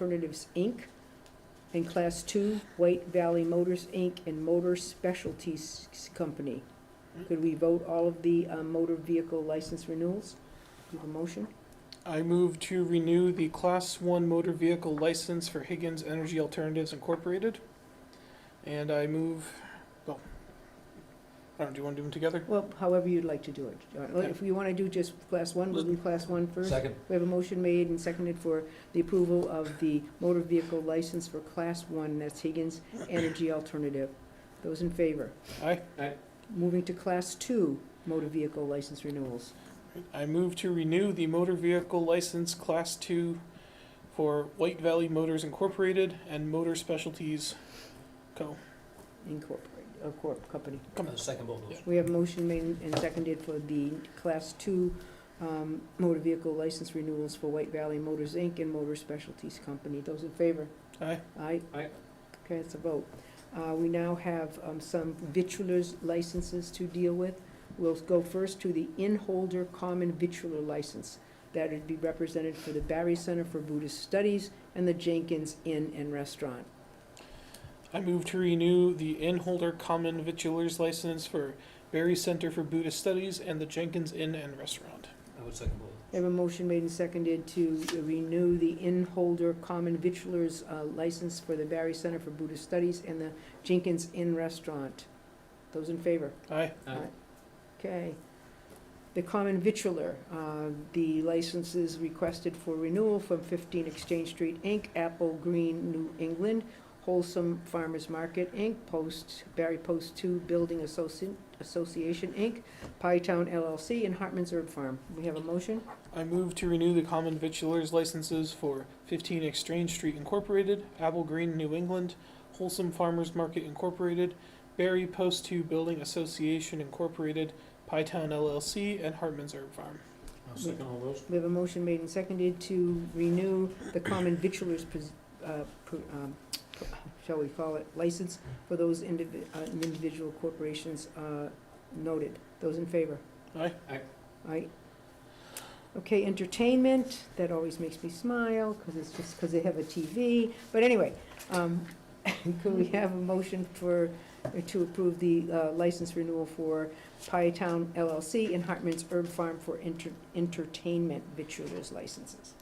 Alternatives, Inc., and Class Two, White Valley Motors, Inc., and Motor Specialties Company. Could we vote all of the uh, motor vehicle license renewals? Do you have a motion? I move to renew the Class 1 motor vehicle license for Higgins Energy Alternatives Incorporated. And I move, well, I don't, do you want to do them together? Well, however you'd like to do it. Uh, If you want to do just Class One, we'll do Class One first. Second. We have a motion made and seconded for the approval of the motor vehicle license for Class 1, that's Higgins Energy Alternative. Those in favor? Aye. Moving to Class 2 motor vehicle license renewals. I move to renew the motor vehicle license Class 2 for White Valley Motors Incorporated and Motor Specialties Co. Incorporated, uh, Corp. Company. Come Uh, Second both of those. We have a motion made and seconded for the Class 2 um, motor vehicle license renewals for White Valley Motors, Inc. and Motor Specialties Company. Those in favor? Aye. Aye? Aye. Okay, it's a vote. Uh, We now have um, some vitrulars licenses to deal with. We'll go first to the inholder common vitrular license. That would be represented for the Barry Center for Buddhist Studies and the Jenkins Inn and Restaurant. I move to renew the Inholder Common Vitulers license for Berry Center for Buddhist Studies and the Jenkins Inn and Restaurant. I would second both. I have a motion made and seconded to renew the inholder common vitrular's uh, license for the Barry Center for Buddhist Studies and the Jenkins Inn Restaurant. Those in favor? Aye. Aye. Okay. The common vitular, uh, the licenses requested for renewal from 15 Exchange Street, Inc., Apple Green, New England, Wholesome Farmers Market, Inc., Post, Barry Post 2 Building Associ- Association, Inc., Pie Town LLC, and Hartman's Herb Farm. We have a motion? I move to renew the common vitulers licenses for 15 Exchange Street Incorporated, Apple Green, New England, Wholesome Farmers Market Incorporated, Berry Post 2 Building Association Incorporated, Pytown LLC, and Hartman's Herb Farm. I'll second all those. We have a motion made and seconded to renew the common vitulars, pres- uh, pr- um, shall we call it, license for those indivi- uh, individual corporations uh, noted. Those in favor? Aye. Aye. Aye. Okay, entertainment, that always makes me smile, because it's just because they have a TV. But anyway, um, could we have a motion for, to approve the uh, license renewal for Pie Town LLC and Hartman's Herb Farm for enter- entertainment vitulers licenses?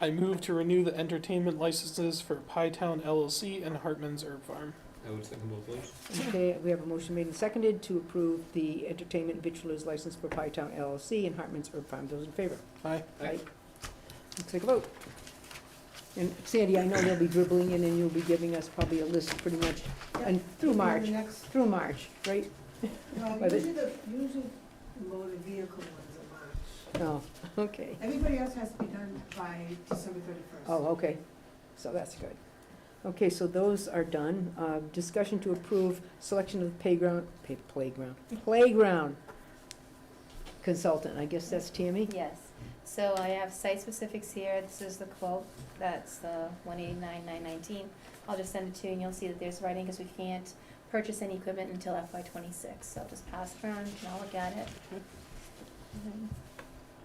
I move to renew the entertainment licenses for Pytown LLC and Hartman's Herb Farm. I would second both those. Okay, we have a motion made and seconded to approve the entertainment vitulers license for Pie Town LLC and Hartman's Herb Farm. Those in favor? Aye. Aye. Let's take a vote. And Sandy, I know they'll be dribbling in and you'll be giving us probably a list pretty much, and through March, The next, through March, right? no, But it- usually the, usually the motor vehicle ones are March. Oh, okay. Everybody else has to be done by December thirty-first. Oh, okay, so that's good. Okay, so those are done. Uh, Discussion to approve selection of playground, pa- playground, playground consultant, I guess that's Tammy? Yes, so I have site-specifics here, this is the quote, that's the one eighty-nine, nine nineteen. I'll just send it to you and you'll see that there's writing, because we can't purchase any equipment until FY twenty-six, so I'll just pass it around, you can all look at it. And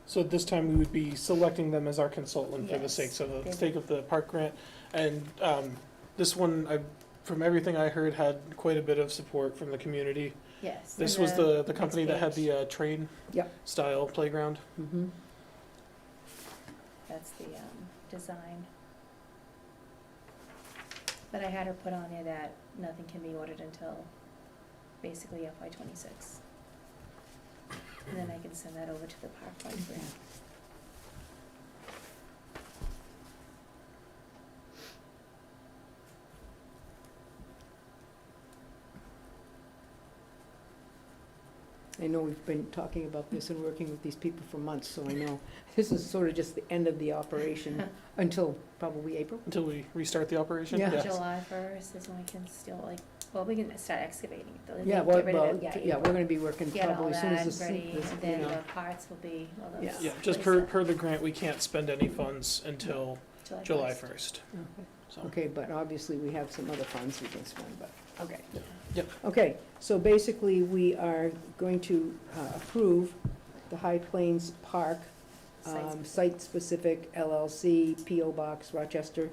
So at this time, we would be selecting them as our consultant for the Yes. sakes of, the They- sake of the park grant. And um, this one, I, from everything I heard, had quite a bit of support from the community. Yes. This and was the, the company that had next page. the uh, train Yep. style playground. Mhm. That's the, um, design. But I had her put on there that nothing can be ordered until basically FY twenty-six. And then I can send that over to the park board grant. I know we've been talking about this and working with these people for months, so I know this is sort of just the end of the operation until probably April. Until we restart the operation? Yeah. July first is when we can still like, well, we can start excavating it, though. Yeah, Get well, rid of it, well, yeah, we're gonna be working Get probably all as soon as that this. ready, this- and then you know. the parts will be, all those. Yeah. Yeah, just per, placed up per the grant, we can't spend any funds until July 1st. Okay. So, Okay, but obviously, we have some other funds we can spend, but, okay. Yeah. Yep. Okay, so basically, we are going to uh, approve the High Plains Park um, Site-specific. Site Specific LLC, P.O. Box, Rochester,